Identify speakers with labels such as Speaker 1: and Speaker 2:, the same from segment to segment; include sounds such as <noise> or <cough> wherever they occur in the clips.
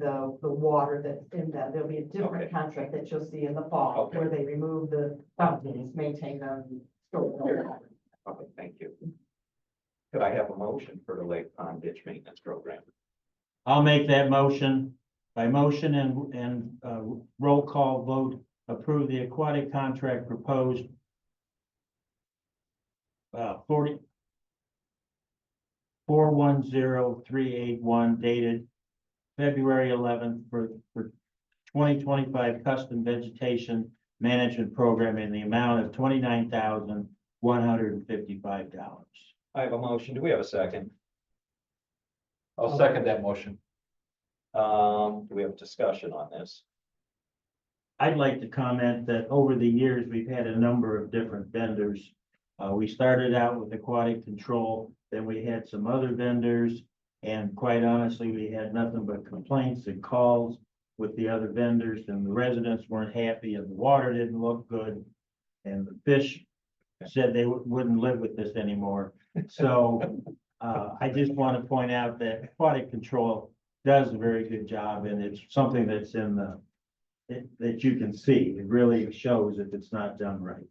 Speaker 1: the, the water that's in them. There'll be a
Speaker 2: Okay.
Speaker 1: different contract that you'll see in the fall,
Speaker 2: Okay.
Speaker 1: where they remove the fountains, maintain them. store them all.
Speaker 2: Okay, thank you. Could I have a motion for the Lake Pond Ditch Maintenance Program?
Speaker 3: I'll make that motion by motion and, and, uh, roll call vote, approve the aquatic contract proposed. Uh, forty. Four one zero three eight one dated February eleventh for, for twenty twenty-five custom vegetation management program in the amount of twenty-nine thousand one hundred and fifty-five dollars.
Speaker 2: I have a motion. Do we have a second?
Speaker 4: I'll second that motion.
Speaker 2: Um, do we have discussion on this?
Speaker 3: I'd like to comment that over the years, we've had a number of different vendors. Uh, we started out with aquatic control, then we had some other vendors. And quite honestly, we had nothing but complaints and calls with the other vendors and the residents weren't happy and the water didn't look good. And the fish said they wou- wouldn't live with this anymore. So, uh, I just want to point out that aquatic control does a very good job and it's something that's in the it, that you can see. It really shows if it's not done right.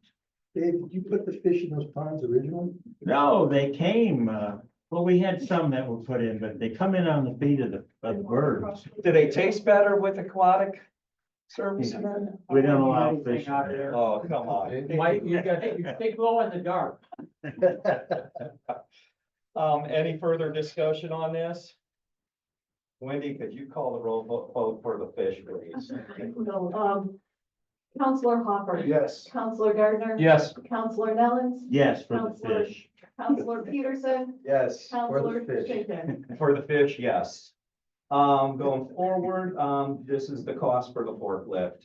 Speaker 4: Dave, did you put the fish in those ponds originally?
Speaker 3: No, they came, uh, well, we had some that were put in, but they come in on the feet of the, of the birds.
Speaker 2: Do they taste better with aquatic service? in there?
Speaker 3: We don't allow fish. in
Speaker 5: Out
Speaker 3: there.
Speaker 5: there.
Speaker 2: Oh, come on.
Speaker 5: Mike, you got, you
Speaker 2: <laughs>
Speaker 5: stay glow in the dark.
Speaker 2: Um, any further discussion on this? Wendy, could you call the roll vo- vote for the fish,
Speaker 1: <laughs>
Speaker 2: please?
Speaker 6: No, um, Counselor Hopper.
Speaker 2: Yes.
Speaker 6: Counselor Gardner.
Speaker 4: Yes.
Speaker 6: Counselor Nellens.
Speaker 3: Yes, for the fish.
Speaker 6: Counselor Peterson.
Speaker 2: Yes.
Speaker 6: Counselor
Speaker 4: fish.
Speaker 6: Shaken.
Speaker 2: For the fish, yes. Um, going forward, um, this is the cost for the forklift.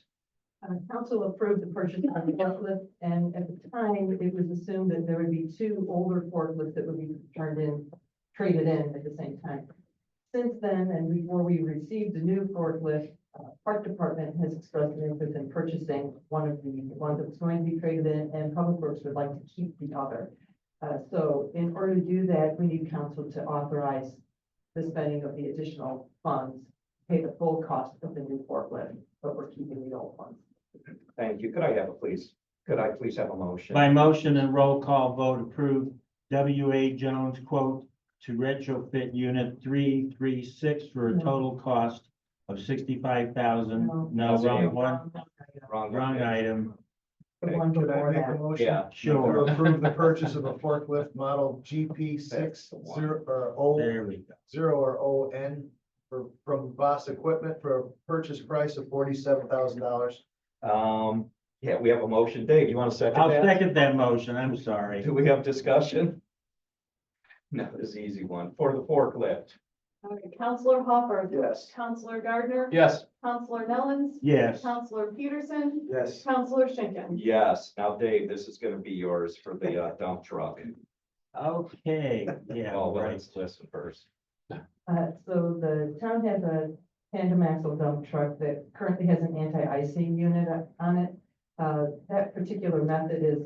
Speaker 1: Uh, council approved the purchase of the forklift, and at the time, it was assumed that there would be two older forklifts that would be turned in, traded in at the same time. Since then, and before we received the new forklift, uh, Park Department has expressed an interest in purchasing one of the ones that was going to be traded in, and Public Works would like to keep the other. Uh, so in order to do that, we need council to authorize the spending of the additional funds, pay the full cost of the new forklift, but we're keeping the old ones.
Speaker 2: Thank you. Could I have a please? Could I please have a motion?
Speaker 3: By motion and roll call vote approved, W A Jones quote to retrofit unit three, three, six for a total cost of sixty-five thousand. No,
Speaker 2: That's
Speaker 3: wrong
Speaker 2: it.
Speaker 3: one,
Speaker 2: Wrong.
Speaker 3: wrong item.
Speaker 1: The one
Speaker 4: Could I
Speaker 1: before
Speaker 4: make a
Speaker 1: that.
Speaker 4: motion?
Speaker 2: Yeah.
Speaker 4: To
Speaker 3: Sure,
Speaker 4: approve the purchase of a forklift model GP
Speaker 2: That's
Speaker 4: six
Speaker 2: the one.
Speaker 4: zero or O
Speaker 3: there we go.
Speaker 4: zero or O N for from Boss Equipment for a purchase price of forty-seven thousand dollars.
Speaker 2: Um, yeah, we have a motion. Dave, you want to second
Speaker 3: I'll
Speaker 2: that?
Speaker 3: second that motion. I'm sorry.
Speaker 2: Do we have discussion? No, this is an easy one. For the forklift.
Speaker 6: All right, Counselor Hopper.
Speaker 4: Yes.
Speaker 6: Counselor Gardner.
Speaker 4: Yes.
Speaker 6: Counselor Nellens.
Speaker 3: Yes.
Speaker 6: Counselor Peterson.
Speaker 4: Yes.
Speaker 6: Counselor Schinkin.
Speaker 2: Yes. Now, Dave, this is gonna be yours for the uh, dump truck.
Speaker 3: Okay, yeah,
Speaker 2: Oh, Well,
Speaker 3: right.
Speaker 2: let's listen first.
Speaker 1: Uh, so the town has a tandem axle dump truck that currently has an anti-icing unit on it. Uh, that particular method is,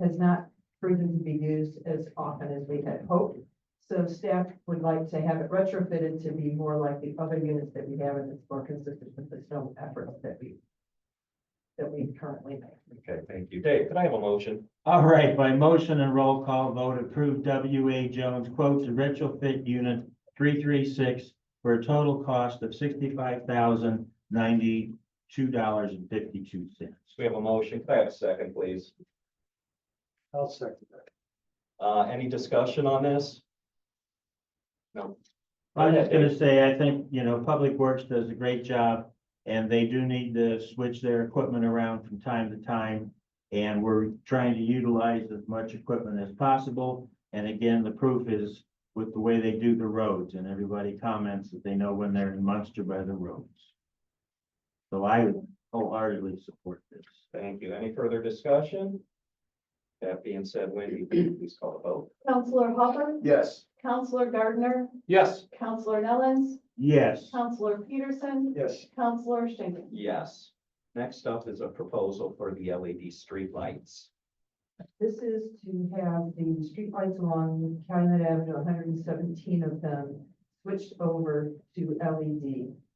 Speaker 1: has not proven to be used as often as we had hoped. So staff would like to have it retrofitted to be more like the other units that we have and it's more consistent with the snow efforts that we, that we currently make.
Speaker 2: Okay, thank you. Dave, could I have a motion?
Speaker 3: All right, by motion and roll call vote, approve W A Jones quote to retrofit unit three three six for a total cost of sixty-five thousand ninety-two dollars and fifty-two cents.
Speaker 2: We have a motion. Could I have a second, please?
Speaker 4: I'll second that.
Speaker 2: Uh, any discussion on this? No.
Speaker 3: I'm just gonna say, I think, you know, Public Works does a great job, and they do need to switch their equipment around from time to time. And we're trying to utilize as much equipment as possible, and again, the proof is with the way they do the roads, and everybody comments that they know when they're in Munster by the roads. So I would wholeheartedly support this.
Speaker 2: Thank you. Any further discussion? That being said, Wendy, will you please call the vote.
Speaker 6: Counselor Hopper.
Speaker 4: Yes.
Speaker 6: Counselor Gardner.
Speaker 4: Yes.
Speaker 6: Counselor Nellens.
Speaker 3: Yes,
Speaker 6: Counselor Peterson.
Speaker 4: Yes.
Speaker 6: Counselor Schinkin.
Speaker 2: Yes. Next up is a proposal for the LED streetlights.
Speaker 1: This is to have the streetlights along Calumet Avenue, hundred and seventeen of them switched over to E LED. uh,